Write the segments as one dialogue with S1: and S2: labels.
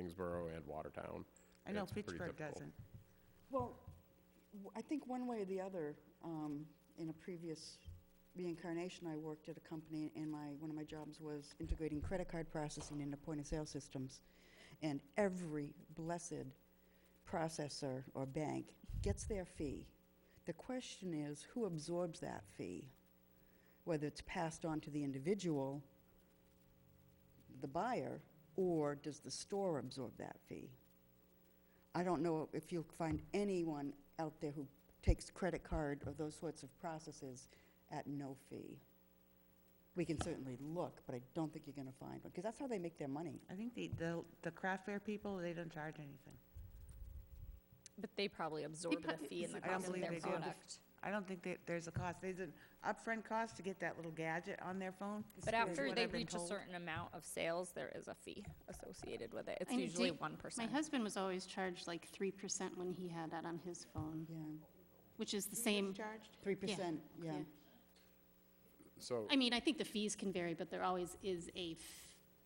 S1: Kingsborough and Watertown.
S2: I know
S1: It's pretty
S2: Pittsburgh
S1: difficult.
S2: doesn't.
S3: Well, w- I think one way or the other, um, in a previous reincarnation, I worked at a company, and my, one of my jobs was integrating credit card processing into point-of-sale systems. And every blessed processor or bank gets their fee. The question is, who absorbs that fee? Whether it's passed on to the individual, the buyer, or does the store absorb that fee? I don't know if you'll find anyone out there who takes credit card or those sorts of processes at no fee. We can certainly look, but I don't think you're going to find one, because that's how they make their money.
S2: I think the, the, the craft fair people, they don't charge anything.
S4: But they probably absorb the fee and the
S2: I don't
S4: cost of
S2: believe
S4: their
S2: they do.
S4: product.
S2: I don't think that there's a cost. There's an upfront cost to get that little gadget on their phone.
S4: But
S2: is
S4: after
S2: what
S4: they
S2: I've been
S4: reach a
S2: told.
S4: certain amount of sales, there is a fee associated with it. It's
S5: I know
S4: usually
S5: Dave-
S4: one
S5: My
S4: percent.
S5: husband was always charged like three percent when he had that on his phone,
S3: Yeah,
S5: which is the same.
S3: three percent, yeah.
S5: yeah.
S1: So,
S5: I mean, I think the fees can vary, but there always is a, f-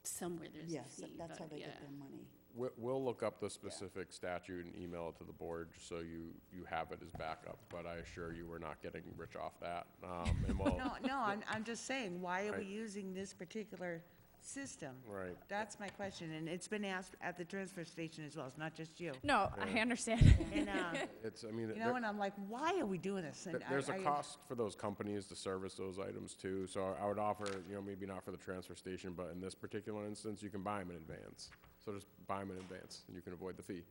S5: somewhere there's a
S3: Yes, that-
S5: fee.
S3: that's how
S5: but
S3: they
S5: yeah.
S3: get their money.
S1: we- we'll look up the specific statute and email it to the board, just so you, you have it as backup, but I assure you, we're not getting rich off that. Um, And we'll,
S2: No, no, I'm, I'm just saying, why are we
S1: Right.
S2: using this particular system?
S1: Right.
S2: That's my question, and it's been asked at the transfer station as well, it's not just you.
S4: No, I understand.
S2: And, uh,
S1: it's, I mean,
S2: you know,
S1: there-
S2: and I'm like, why are we doing this? And
S1: there-
S2: I-
S1: there's a
S2: I-
S1: cost for those companies to service those items too, so I would offer, you know, maybe not for the transfer station, but in this particular instance, you can buy them in advance. So just buy them in advance, and you can avoid the fee.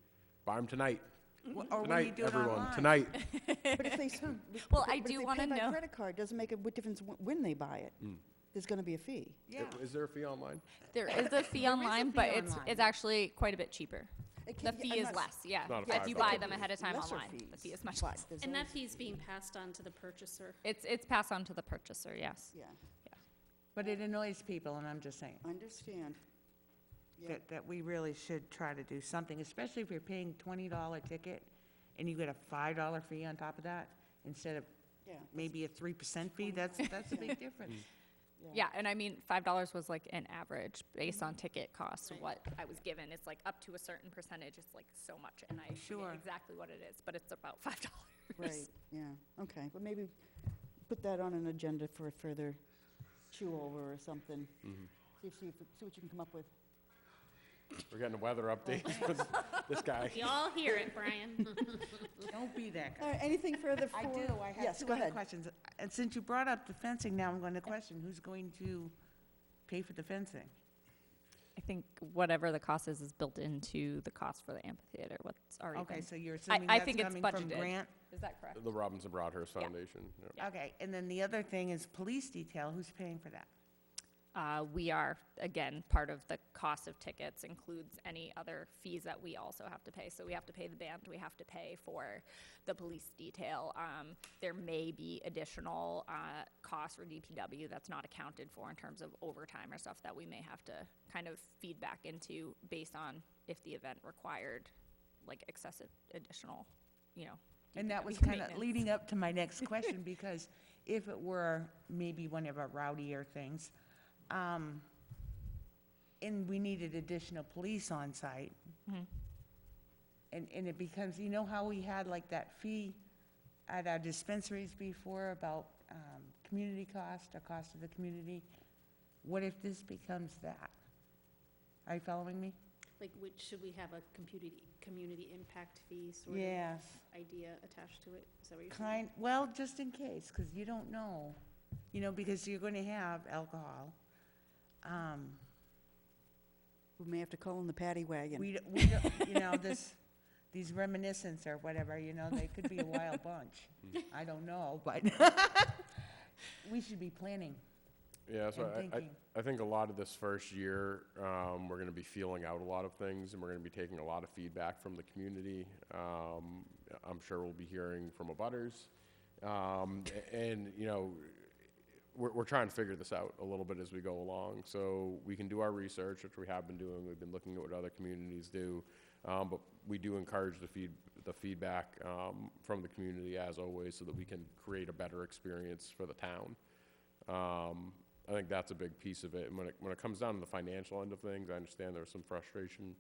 S1: Buy them tonight.
S2: Or when you
S1: Tonight,
S2: do it
S1: everyone,
S2: online.
S1: tonight.
S3: But if they, s- but-
S4: Well,
S3: but
S4: I
S3: if
S4: do
S3: they
S4: wanna
S3: Pay by
S4: know-
S3: credit card, doesn't make a w- difference wh- when they buy it.
S4: Hmm.
S3: There's going to be a fee.
S2: Yeah,
S1: Is there a fee online?
S4: There is a fee online,
S2: fee
S4: but it's,
S2: online.
S4: it's actually quite a bit cheaper.
S3: It
S4: The
S3: can- yeah,
S4: fee
S3: I'm
S4: is
S3: not s-
S4: less, yeah.
S1: Not a
S4: If
S1: five
S4: you
S1: bucks.
S4: buy them ahead of time
S3: Lesser
S4: online, the
S3: fees,
S4: fee is much
S3: but
S4: less.
S3: there's
S6: And that
S3: always-
S6: fee's being passed on to the purchaser.
S4: It's, it's passed on to the purchaser, yes.
S3: Yeah,
S2: but it annoys people, and I'm just saying.
S3: understand. Yeah.
S2: that, that we really should try to do something, especially if you're paying twenty dollar ticket and you get a five dollar fee on top of that, instead of
S3: Yeah, that's-
S2: maybe a three percent fee, that's, that's a big difference.
S4: Yeah, and I mean, five dollars was like an average based on ticket costs, what I was given. It's like up to a certain percentage, it's like so much, and I
S2: Sure.
S4: forget exactly what it is, but it's about five dollars.
S3: Right, yeah, okay, but maybe put that on an agenda for a further chew over or something. See if, see if- see what you can come up with.
S1: We're getting a weather update. This guy.
S6: We all hear it, Brian.
S2: Don't be that guy.
S3: All right, anything further for?
S2: Mm. I do, I have
S3: Yes,
S2: two
S3: go
S2: other
S3: ahead.
S2: questions. And since you brought up the fencing, now I'm gonna question, who's going to pay for the fencing?
S4: I think whatever the cost is, is built into the cost for the amphitheater, what's already
S2: Okay, so you're
S4: I,
S2: assuming
S4: I
S2: that's
S4: think it's
S2: coming from
S4: budgeted.
S2: grant?
S4: Is that correct?
S1: The Robinson Broadhurst
S4: Yeah.
S1: Foundation. yeah.
S2: Okay, and then the other thing is police detail, who's paying for that?
S4: Uh, we are, again, part of the cost of tickets includes any other fees that we also have to pay. So we have to pay the band, we have to pay for the police detail. Um, there may be additional, uh, costs for DPW that's not accounted for in terms of overtime or stuff that we may have to kind of feed back into based on if the event required, like excessive additional, you know.
S2: And that
S4: DPW
S2: was kind of
S4: maintenance.
S2: leading up to my next question, because if it were maybe one of our rowdier things, um, and we needed additional police on site, and, and it becomes, you know how we had like that fee at our dispensaries before about, um, community cost, or cost of the community? What if this becomes that? Are you following me?
S6: Like, which, should we have a community, community impact fee sort of
S2: Yes.
S6: idea attached to it? Is that what you're saying?
S2: Kind, well, just in case, because you don't know, you know, because you're going to have alcohol. Um,
S3: We may have to call in the paddy wagon.
S2: We, d- we, don't- you know, this, these reminiscence or whatever, you know, they could be a wild bunch. I don't know, but we should be planning.
S1: Yeah, so
S2: and
S1: I- I,
S2: thinking.
S1: I think a lot of this first year, um, we're gonna be feeling out a lot of things, and we're gonna be taking a lot of feedback from the community. Um, I'm sure we'll be hearing from abutters. Um, a- and, you know, we're, we're trying to figure this out a little bit as we go along. So we can do our research, which we have been doing. We've been looking at what other communities do. Um, but we do encourage the feed, the feedback, um, from the community as always, so that we can create a better experience for the town. Um, I think that's a big piece of it. And when it, when it comes down to the financial end of things, I understand there's some frustration